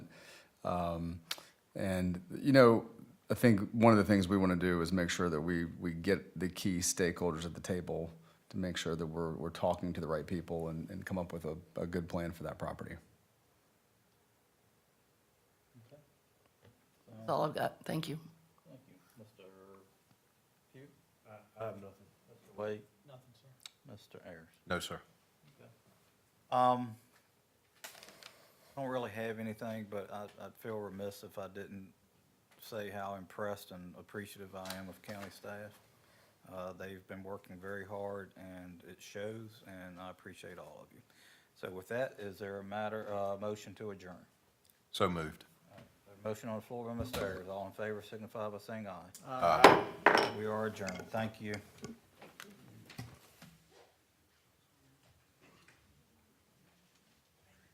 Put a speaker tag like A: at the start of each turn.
A: Um, and you know, I think one of the things we want to do is make sure that we we get the key stakeholders at the table to make sure that we're we're talking to the right people and, and come up with a, a good plan for that property.
B: That's all I've got. Thank you.
C: Uh, Thank you. Mr. Pugh? I, I have nothing. Mr. Wade? Nothing, sir. Mr. Ayers?
D: No, sir.
C: Um, I don't really have anything, but I, I'd feel remiss if I didn't say how impressed and appreciative I am of county staff. Uh, they've been working very hard and it shows, and I appreciate all of you. So with that, is there a matter, uh, motion to adjourn?
D: So moved.
C: A Motion on the floor by Mr. Ayers. All in favor signify by saying aye. We are adjourned. Thank you.